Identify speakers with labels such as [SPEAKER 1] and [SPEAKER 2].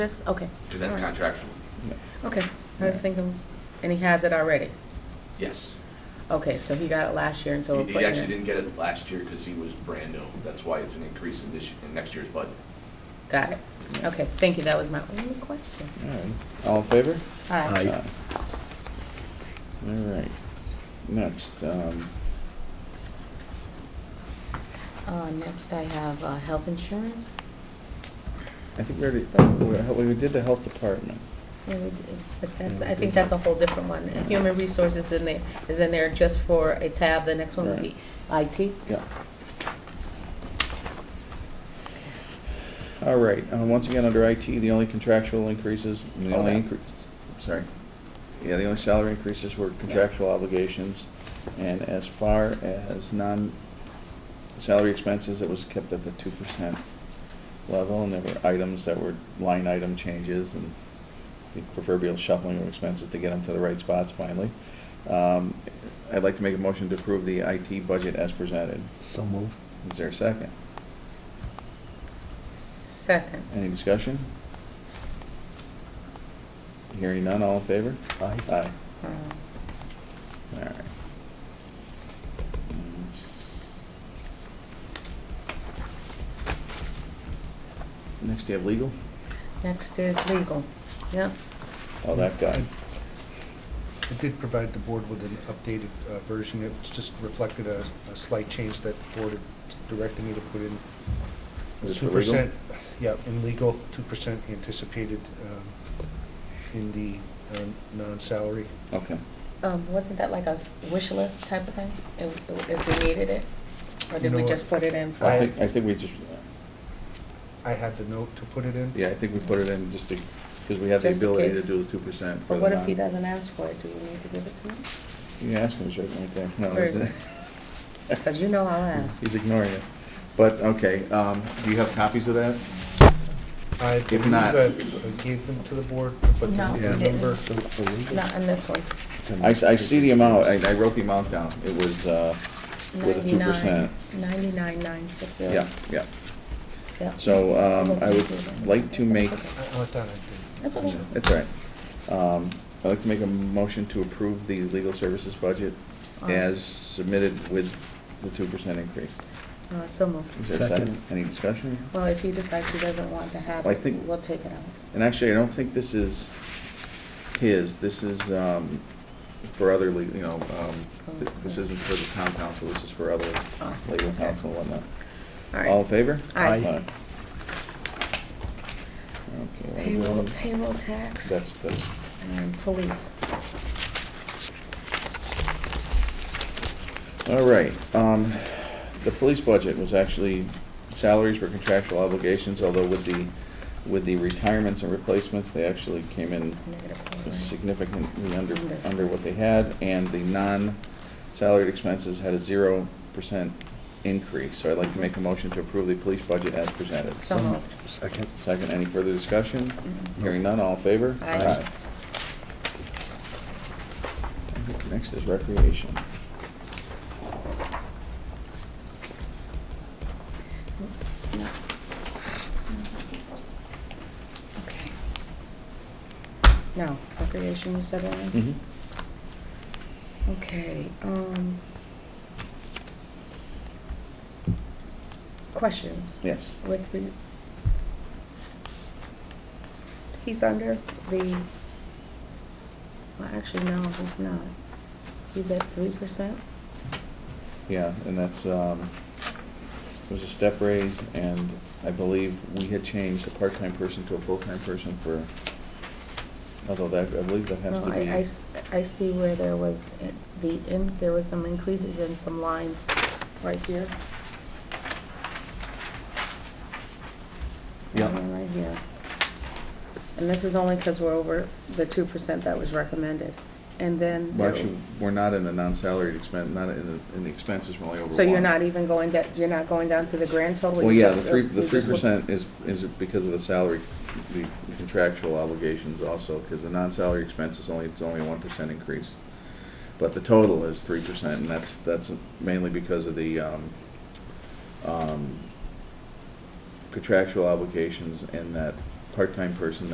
[SPEAKER 1] This, okay.
[SPEAKER 2] because that's
[SPEAKER 1] All right.
[SPEAKER 2] contractual.
[SPEAKER 1] Okay, I was thinking, and he has it already.
[SPEAKER 2] Yes.
[SPEAKER 1] Okay, so he got it last year and so we're
[SPEAKER 2] He he
[SPEAKER 1] putting
[SPEAKER 2] actually
[SPEAKER 1] it.
[SPEAKER 2] didn't get it last year because he was brand new. That's why it's an increase in this, in next year's budget.
[SPEAKER 1] Got it. Okay, thank you, that was my only question.
[SPEAKER 3] All right. All in favor?
[SPEAKER 1] All right.
[SPEAKER 4] Aye.
[SPEAKER 3] All right. Next, um,
[SPEAKER 1] Uh, next I have, uh, health insurance.
[SPEAKER 3] I think we already, uh, we we did the health department.
[SPEAKER 1] Yeah, we did, But that's,
[SPEAKER 3] Yeah, we
[SPEAKER 1] I think
[SPEAKER 3] did.
[SPEAKER 1] that's a whole different one. And Human resources in there, is in there just for a tab. The next one would be IT.
[SPEAKER 3] Yeah. All right, uh, once again, under IT, the only contractual increases, the
[SPEAKER 1] Hold
[SPEAKER 3] only
[SPEAKER 1] on.
[SPEAKER 3] increase, sorry. Yeah, the only salary increases were contractual obligations. And as far as non-salary expenses, it was kept at the two percent level. And there were items that were line item changes and the proverbial shuffling of expenses to get them to the right spots finally. Um, I'd like to make a motion to approve the IT budget as presented.
[SPEAKER 4] So moved.
[SPEAKER 3] Is there a second?
[SPEAKER 1] Second.
[SPEAKER 3] Any discussion? Hearing none, all in favor?
[SPEAKER 4] Aye.
[SPEAKER 3] Aye.
[SPEAKER 1] Um,
[SPEAKER 3] All right. Next, you have legal?
[SPEAKER 1] Next is legal. Yep.
[SPEAKER 3] Oh, that guy.
[SPEAKER 5] I did provide the board with an updated uh, version. It's just reflected a a slight change that the board had directed me to put in.
[SPEAKER 3] Is this for
[SPEAKER 5] Two
[SPEAKER 3] legal?
[SPEAKER 5] percent, yeah, in legal, two percent anticipated um, in the um, non-salary.
[SPEAKER 3] Okay.
[SPEAKER 1] Um, wasn't that like a s- wish list type of thing? If, if we needed it? Or
[SPEAKER 5] You
[SPEAKER 1] did
[SPEAKER 5] know
[SPEAKER 1] we
[SPEAKER 5] what?
[SPEAKER 1] just put it in for?
[SPEAKER 3] I
[SPEAKER 5] I-
[SPEAKER 3] think, I think we just,
[SPEAKER 5] I had the note to put it in.
[SPEAKER 3] yeah, I think we put it in just to, because we have the
[SPEAKER 1] Just in
[SPEAKER 3] ability to
[SPEAKER 1] case.
[SPEAKER 3] do the two percent.
[SPEAKER 1] But what if he doesn't ask for it? Do we need to give it to him?
[SPEAKER 3] You can ask him, he's right right there. No,
[SPEAKER 1] Where is
[SPEAKER 3] isn't it?
[SPEAKER 1] Because you know I'll ask.
[SPEAKER 3] He's ignoring us. But, okay, um, do you have copies of that?
[SPEAKER 5] I believe
[SPEAKER 3] not-
[SPEAKER 5] I I gave them to the board, but
[SPEAKER 1] No,
[SPEAKER 5] the
[SPEAKER 1] we
[SPEAKER 5] the
[SPEAKER 1] didn't.
[SPEAKER 5] number,
[SPEAKER 4] So for
[SPEAKER 5] Mm-hmm.
[SPEAKER 4] legal?
[SPEAKER 1] Not on this one.
[SPEAKER 3] I, I see the amount, I, I wrote the amount down. It was, uh, with a two percent.
[SPEAKER 1] Ninety-nine, nine, six, zero.
[SPEAKER 3] Yeah, yeah.
[SPEAKER 1] Yeah.
[SPEAKER 3] So, um, I would like to make,
[SPEAKER 5] I I thought I did.
[SPEAKER 1] That's okay.
[SPEAKER 3] that's all right. Um, I'd like to make a motion to approve the legal services budget as submitted with the two percent increase.
[SPEAKER 1] Uh, so moved.
[SPEAKER 3] Is there a second?
[SPEAKER 4] Second.
[SPEAKER 3] Any discussion?
[SPEAKER 1] Well, if he decides he doesn't want to have
[SPEAKER 3] I
[SPEAKER 1] it,
[SPEAKER 3] think-
[SPEAKER 1] we'll take it out.
[SPEAKER 3] And actually, I don't think this is his, this is, um, for other, le- you know, um, th- this isn't for the town council, this is for other
[SPEAKER 1] Oh,
[SPEAKER 3] legal
[SPEAKER 1] okay.
[SPEAKER 3] counsel and whatnot.
[SPEAKER 1] All right.
[SPEAKER 3] All in favor?
[SPEAKER 1] Aye.
[SPEAKER 3] Okay. what do we
[SPEAKER 1] Payroll,
[SPEAKER 3] want?
[SPEAKER 1] payroll tax.
[SPEAKER 3] That's, that's,
[SPEAKER 1] And police.
[SPEAKER 3] all right. Um, the police budget was actually, salaries were contractual obligations, although with the, with the retirements and replacements, they actually came in
[SPEAKER 1] negative point nine.
[SPEAKER 3] significantly under,
[SPEAKER 1] Under.
[SPEAKER 3] under what they had, and the non-salaried expenses had a zero percent increase. So I'd like to make a motion to approve the police budget as presented.
[SPEAKER 1] So moved.
[SPEAKER 4] Second.
[SPEAKER 3] Second, any further discussion?
[SPEAKER 1] Mhm.
[SPEAKER 3] Hearing none, all in favor?
[SPEAKER 1] Aye.
[SPEAKER 3] Aye. Next is recreation.
[SPEAKER 1] No. Okay. Now, recreation, you said, Ellen?
[SPEAKER 3] Mhm.
[SPEAKER 1] Okay, um. Questions?
[SPEAKER 3] Yes.
[SPEAKER 1] With re- He's under the, well, actually, no, he's not. He's at three percent?
[SPEAKER 3] Yeah, and that's, um, it was a step raise, and I believe we had changed a part-time person to a full-time person for, although that, I believe that has
[SPEAKER 1] No,
[SPEAKER 3] to be.
[SPEAKER 1] I- I s- I see where there was i- the, in- there was some increases in some lines right here.
[SPEAKER 3] Yeah.
[SPEAKER 1] And one Right here. And this is only because we're over the two percent that was recommended. And then,
[SPEAKER 3] Well,
[SPEAKER 1] there-
[SPEAKER 3] actually, we're not in the non-salaried expense, not in the, in the expenses, we're only over one.
[SPEAKER 1] so you're not even going, that you're not going down to the grand total?
[SPEAKER 3] Well,
[SPEAKER 1] you
[SPEAKER 3] yeah,
[SPEAKER 1] just-
[SPEAKER 3] the three,
[SPEAKER 1] uh,
[SPEAKER 3] the
[SPEAKER 1] you
[SPEAKER 3] three
[SPEAKER 1] just look-
[SPEAKER 3] percent is, is because of the salary, the contractual obligations also, because the non-salary expense is only, it's only a one percent increase. But the total is three percent, and that's, that's mainly because of the, um, um, contractual obligations and that part-time person